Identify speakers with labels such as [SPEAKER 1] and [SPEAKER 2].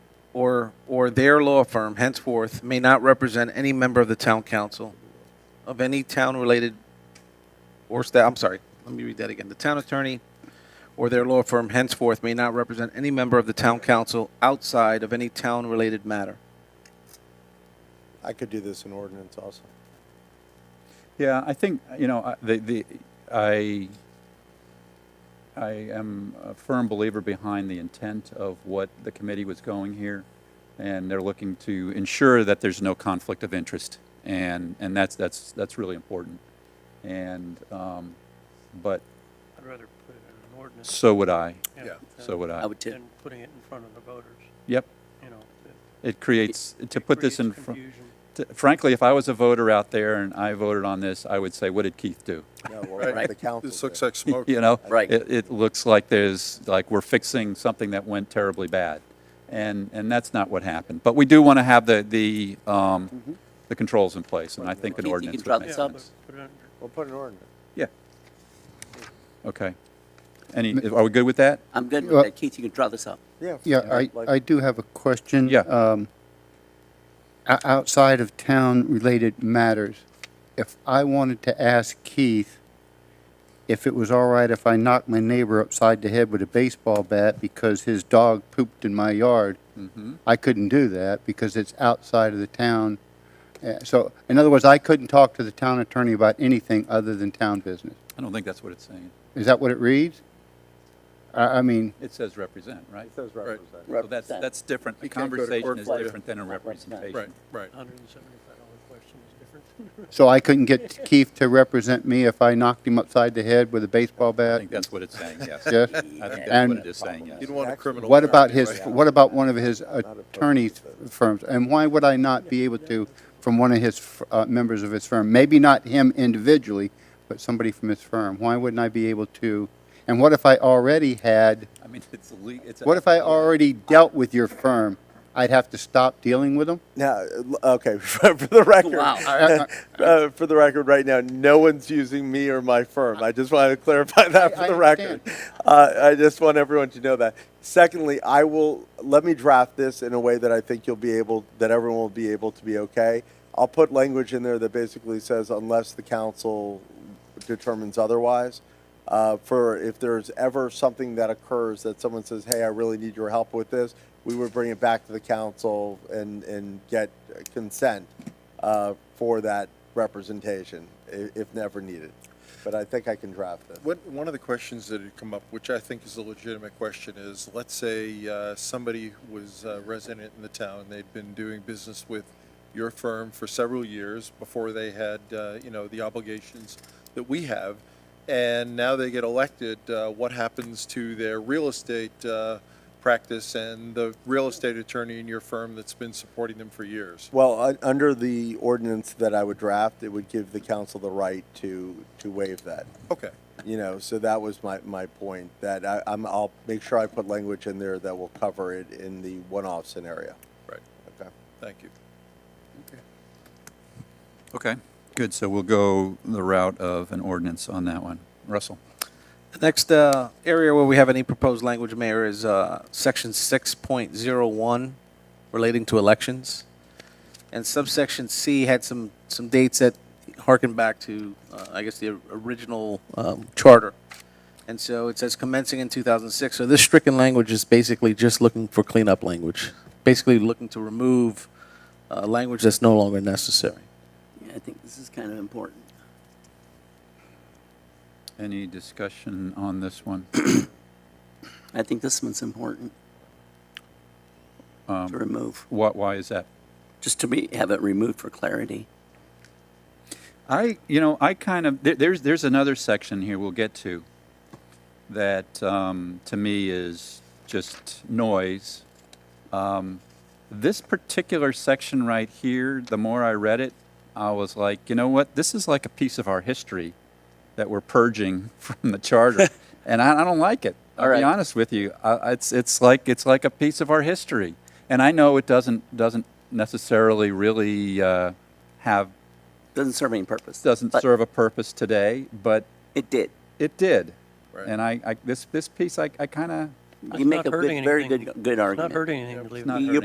[SPEAKER 1] or, or their law firm henceforth may not represent any member of the town council of any town-related or staff, I'm sorry, let me read that again. The town attorney or their law firm henceforth may not represent any member of the town council outside of any town-related matter.
[SPEAKER 2] I could do this in ordinance also.
[SPEAKER 3] Yeah, I think, you know, I- the, the, I, I am a firm believer behind the intent of what the committee was going here. And they're looking to ensure that there's no conflict of interest. And, and that's, that's, that's really important. And, um, but
[SPEAKER 4] I'd rather put it in an ordinance.
[SPEAKER 3] so would I,
[SPEAKER 4] Yeah.
[SPEAKER 3] so would
[SPEAKER 5] I
[SPEAKER 3] I.
[SPEAKER 5] would too.
[SPEAKER 4] Than putting it in front of the voters,
[SPEAKER 3] Yep,
[SPEAKER 4] you know. it-
[SPEAKER 3] it creates, to
[SPEAKER 4] it
[SPEAKER 3] put this in
[SPEAKER 4] creates
[SPEAKER 3] front.
[SPEAKER 4] confusion.
[SPEAKER 3] t- frankly, if I was a voter out there and I voted on this, I would say, what did Keith do?
[SPEAKER 2] No, well,
[SPEAKER 5] Right.
[SPEAKER 2] the council
[SPEAKER 6] This looks
[SPEAKER 2] did.
[SPEAKER 6] like smoke.
[SPEAKER 3] You know?
[SPEAKER 5] Right.
[SPEAKER 3] It, it looks like there's, like we're fixing something that went terribly bad. And, and that's not what happened. But we do want to have the, the,
[SPEAKER 6] Mm-hmm.
[SPEAKER 3] um, the controls in place, and I think an
[SPEAKER 5] Keith, you
[SPEAKER 3] ordinance
[SPEAKER 5] can draw
[SPEAKER 3] would
[SPEAKER 5] Makes
[SPEAKER 4] Yeah,
[SPEAKER 3] make
[SPEAKER 5] this up.
[SPEAKER 3] sense.
[SPEAKER 4] but put it under-
[SPEAKER 2] We'll put an ordinance.
[SPEAKER 3] Yeah. Okay. Any, are we good with that?
[SPEAKER 5] I'm good
[SPEAKER 7] Well-
[SPEAKER 5] with that. Keith, you can draw this up.
[SPEAKER 2] Yeah.
[SPEAKER 7] Yeah, I,
[SPEAKER 2] like-
[SPEAKER 7] I do have a question.
[SPEAKER 3] Yeah.
[SPEAKER 7] Um, o- Outside of town-related matters, if I wanted to ask Keith if it was all right if I knocked my neighbor upside the head with a baseball bat because his dog pooped in my yard, I couldn't do that because it's outside of the town. Uh, So, in other words, I couldn't talk to the town attorney about anything other than town business.
[SPEAKER 3] I don't think that's what it's saying.
[SPEAKER 7] Is that what it reads? I, I mean,
[SPEAKER 3] It says represent, right?
[SPEAKER 2] It says represent.
[SPEAKER 3] So that's, that's different. A
[SPEAKER 6] You can't go to court
[SPEAKER 3] conversation is
[SPEAKER 6] for it.
[SPEAKER 3] different than a
[SPEAKER 5] Represent.
[SPEAKER 3] representation.
[SPEAKER 6] Right, right.
[SPEAKER 4] $175 question is different.
[SPEAKER 7] So I couldn't get Keith to represent me if I knocked him upside the head with a baseball
[SPEAKER 3] I
[SPEAKER 7] bat?
[SPEAKER 3] think that's what it's saying, yes. I
[SPEAKER 7] Yes?
[SPEAKER 3] think that's
[SPEAKER 7] And-
[SPEAKER 3] what it is saying, yes.
[SPEAKER 6] You don't want a criminal.
[SPEAKER 7] What about his,
[SPEAKER 6] record, right?
[SPEAKER 7] what about one of his attorney's firms? And why would I not be able to from one of his, uh, members of his firm? Maybe not him individually, but somebody from his firm. Why wouldn't I be able to? And what if I already had,
[SPEAKER 3] I mean, it's a le, it's. a-
[SPEAKER 7] what if I already dealt with your firm? I'd have to stop dealing with them?
[SPEAKER 2] Now, okay, for for the record.
[SPEAKER 5] Wow.
[SPEAKER 7] I-
[SPEAKER 2] Uh, for the record, right now, no one's using me or my firm. I just wanted to clarify that for
[SPEAKER 7] I
[SPEAKER 2] the record. Uh, I just want everyone to know that. Secondly, I will, let me draft this in a way that I think you'll be able, that everyone will be able to be okay. I'll put language in there that basically says unless the council determines otherwise. Uh, for if there's ever something that occurs that someone says, hey, I really need your help with this, we would bring it back to the council and, and get consent uh, for that representation, i- if never needed. But I think I can draft this.
[SPEAKER 6] What, one of the questions that had come up, which I think is a legitimate question, is let's say uh, somebody was a resident in the town, they'd been doing business with your firm for several years before they had, uh, you know, the obligations that we have, and now they get elected, uh, what happens to their real estate uh, practice and the real estate attorney in your firm that's been supporting them for years?
[SPEAKER 2] Well, un- under the ordinance that I would draft, it would give the council the right to, to waive that.
[SPEAKER 6] Okay.
[SPEAKER 2] You know, so that was my, my point, that I, I'm, I'll make sure I put language in there that will cover it in the one-off scenario.
[SPEAKER 6] Right,
[SPEAKER 2] Okay.
[SPEAKER 6] thank you.
[SPEAKER 3] Okay, good, so we'll go the route of an ordinance on that one. Russell?
[SPEAKER 1] The next uh, area where we have any proposed language, Mayor, is uh, Section 6.01 relating to elections. And subsection C had some, some dates that harken back to, uh, I guess, the original um, charter. And so it says commencing in 2006. So this stricken language is basically just looking for cleanup language, basically looking to remove uh, language that's no longer necessary.
[SPEAKER 5] Yeah, I think this is kind of important.
[SPEAKER 3] Any discussion on this one?
[SPEAKER 5] I think this one's important
[SPEAKER 3] Um,
[SPEAKER 5] to remove,
[SPEAKER 3] What, why is that?
[SPEAKER 5] just to be, have it removed for clarity.
[SPEAKER 3] I, you know, I kind of, there, there's, there's another section here we'll get to that, um, to me is just noise. Um, this particular section right here, the more I read it, I was like, you know what? This is like a piece of our history that we're purging from the charter. and I, I don't like it. I'll
[SPEAKER 5] All
[SPEAKER 3] be
[SPEAKER 5] right.
[SPEAKER 3] honest with you. I, it's, it's like, it's like a piece of our history. And I know it doesn't, doesn't necessarily really, uh, have
[SPEAKER 5] Doesn't serve any purpose.
[SPEAKER 3] doesn't
[SPEAKER 5] but
[SPEAKER 3] serve a purpose today, but
[SPEAKER 5] It did.
[SPEAKER 3] it did.
[SPEAKER 6] Right.
[SPEAKER 3] And I, I, this, this piece, I, I kind of,
[SPEAKER 5] You make
[SPEAKER 4] not
[SPEAKER 5] a good,
[SPEAKER 4] hurting
[SPEAKER 5] very
[SPEAKER 4] anything.
[SPEAKER 5] good, good
[SPEAKER 4] It's not
[SPEAKER 5] argument.
[SPEAKER 4] hurting anything to leave it.
[SPEAKER 3] not
[SPEAKER 5] You-
[SPEAKER 3] hurting